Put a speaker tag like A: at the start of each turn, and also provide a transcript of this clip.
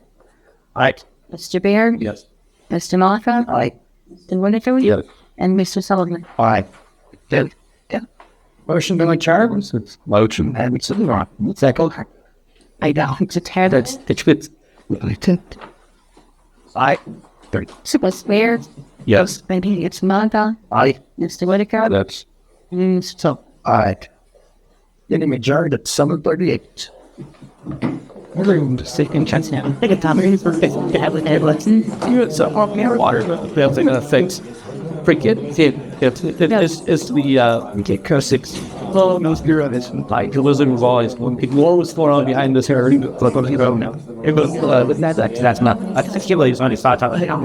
A: Aye.
B: Mr. Bear?
A: Yes.
B: Mr. Malika?
A: Aye.
B: Mr. Winifred?
A: Yes.
B: And Mr. Sullivan?
A: Aye.
C: Motion to adjourn?
A: Motion. Second.
B: I don't. It's terrible.
A: It's good. Aye.
B: Mr. Bear?
A: Yes.
B: Maybe it's Malika?
A: Aye.
B: Mr. Whitaker?
A: That's
B: And Mr. Sullivan?
A: aye.
C: Then we adjourned at seven thirty-eight. Everyone's taking chance now. Take a time.
A: It's a hot air water. That's gonna fix. Forget it. It's it's it's the uh.
C: Get cursed.
A: Well, no spirit of it. Like it wasn't voice. When the war was going on behind this hair, it was, you know, it was, uh, that's, that's not, I think it's only five times.